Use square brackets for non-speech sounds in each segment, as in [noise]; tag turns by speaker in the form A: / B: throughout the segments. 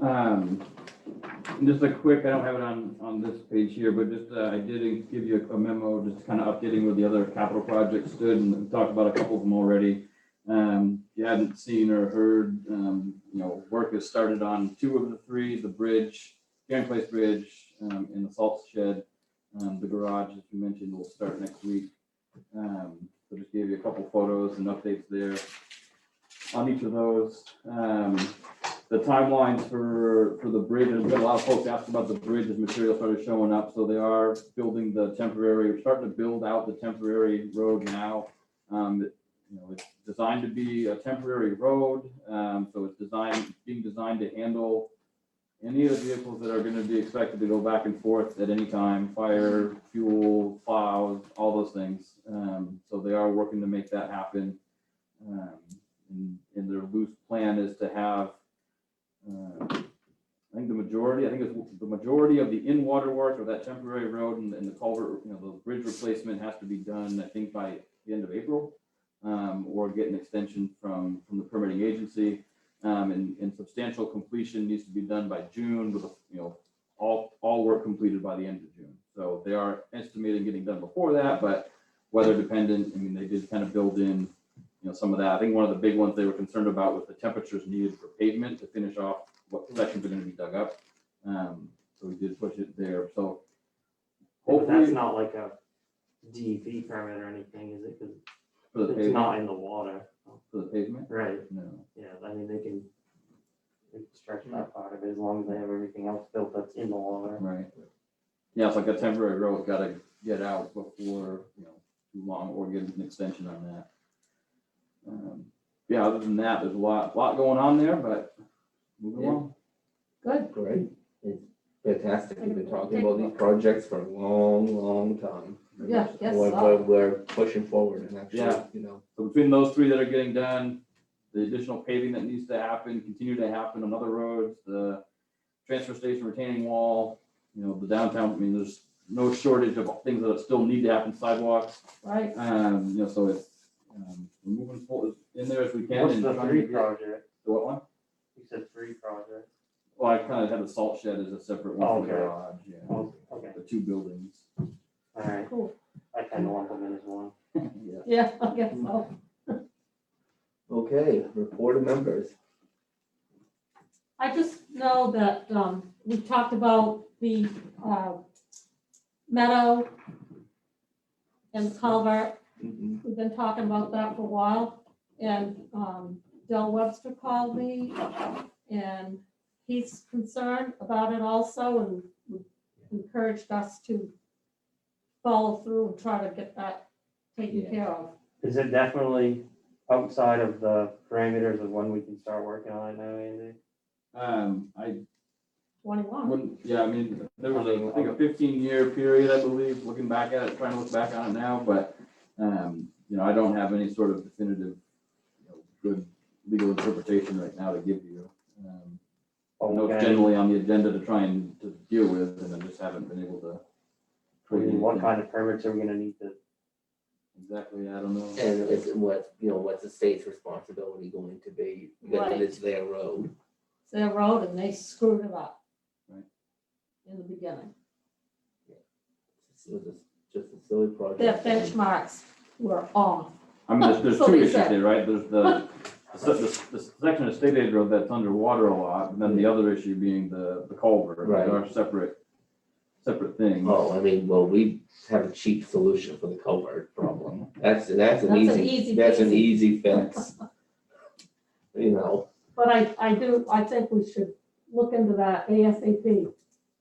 A: Um, and just a quick, I don't have it on, on this page here, but just, uh, I did give you a memo, just kind of updating where the other capital projects stood and talked about a couple of them already. Um, if you hadn't seen or heard, um, you know, work has started on two of the three, the bridge, Grand Place Bridge, um, and the salt shed. Um, the garage, as you mentioned, will start next week. Um, so just gave you a couple photos and updates there on each of those. Um, the timelines for, for the bridge, and we've got a lot of folks asked about the bridge, as material started showing up, so they are building the temporary, we're starting to build out the temporary road now. Um, it- you know, it's designed to be a temporary road, um, so it's designed, being designed to handle any of the vehicles that are gonna be expected to go back and forth at any time, fire, fuel, plows, all those things. Um, so they are working to make that happen. Um, and, and their loose plan is to have uh, I think the majority, I think it's the majority of the in-water work of that temporary road and, and the culvert, you know, the bridge replacement has to be done, I think, by the end of April. Um, or get an extension from, from the permitting agency. Um, and, and substantial completion needs to be done by June with, you know, all, all work completed by the end of June. So they are estimating getting done before that, but weather dependent, I mean, they did kind of build in, you know, some of that. I think one of the big ones they were concerned about was the temperatures needed for pavement to finish off what sections are gonna be dug up. Um, so we did push it there, so.
B: But that's
A: Hopefully,
B: not like a DEP permit or anything, is it? 'Cause
A: for the
B: it's
A: pavement,
B: not in the water.
A: for the pavement,
B: Right,
A: no,
B: yeah, I mean, they can they can stretch that part of it as long as they have everything else built that's in the water.
A: right? Yeah, it's like a temporary road, gotta get out before, you know, too long, or get an extension on that. Um, Yeah, other than that, there's a lot, lot going on there, but moving along.
C: Good.
D: Great, it's fantastic, we've been talking about these projects for a long, long time.
C: Yeah, yes,
D: We're,
C: so.
D: we're, we're pushing forward and actually,
A: Yeah.
D: you know,
A: So between those three that are getting done, the additional paving that needs to happen, continue to happen on other roads, the transfer station retaining wall, you know, the downtown, I mean, there's no shortage of things that still need to happen, sidewalks.
C: Right,
A: Um, you know, so it's, um, we're moving forward in there as we can.
B: What's
A: and
B: the
A: trying to
B: three
A: get-
B: project?
A: The what one?
B: You said three projects.
A: Well, I kind of had the salt shed as a separate one for the
B: Okay.
A: garage, yeah,
B: Oh, okay,
A: the two buildings. [laughs]
B: all right.
C: cool.
B: I kind of lump them in as one.
A: Yeah.
C: Yeah, I guess so.
D: okay, report of members.
C: I just know that, um, we talked about the, uh, meadow and culvert.
D: Mhm.
C: We've been talking about that for a while. And, um, Del Webster called me and he's concerned about it also and encouraged us to follow through and try to get that taken
D: Yeah.
C: care of.
B: Is it definitely outside of the parameters of when we can start working on it now, Andy?
A: Um, I
C: Twenty-one,
A: Wouldn't, yeah, I mean, there was a, I think a fifteen year period, I believe, looking back at it, trying to look back on it now, but, um, you know, I don't have any sort of definitive, you know, good legal interpretation right now to give you. Um, I know it's
B: Okay,
A: generally on the agenda to try and to deal with, and I just haven't been able to.
B: I mean, what kind of permits are we gonna need to
A: Exactly, I don't know.
D: And it's what, you know, what's the state's responsibility going to be, because
C: Right.
D: it's their road.
C: it's their road and they screwed it up.
A: Right.
C: In the beginning,
D: It was just- just a silly project.
C: their benchmarks were off,
A: I mean,
D: [laughs]
A: there's, there's
C: So
A: two
C: they
A: issues
C: said.
A: there, right? There's the, the se- the, the section of state aid road that's underwater a lot, and then the other issue being the, the culvert.
D: Right.
A: They are separate, separate things.
D: Oh, I mean, well, we have a cheap solution for the culvert problem. That's, that's an
C: That's an
D: easy,
C: easy
D: that's an
C: peasy.
D: easy
C: [laughs]
D: fix. You know,
C: but I, I do, I think we should look into that ASAP,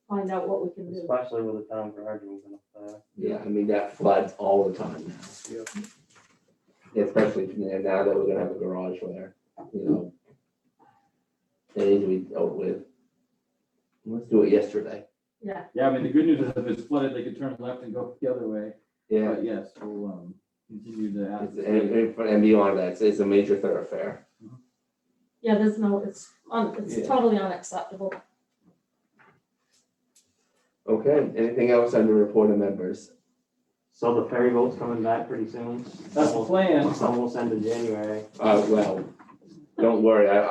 C: find out what we can do.
B: Especially with the town garage moving up there.
D: yeah, I mean, that floods all the time now. Especially now that we're gonna have a garage there, you know. It needs to be dealt with. Let's do it yesterday.
C: Yeah,
A: Yeah, I mean, the good news is if it's flooded, they could turn left and go the other way.
D: Yeah,
A: But yes, we'll um, continue to ask.
D: it's- and, and for- and beyond that, it's- it's a major thoroughfare.
C: yeah, there's no, it's, un- it's
D: Yeah.
C: totally unacceptable.
D: Okay, anything else under report of members?
B: So the ferry boat's coming back pretty soon.
A: That's the plan.
B: It's almost end of January.
D: Uh, well, don't worry, I,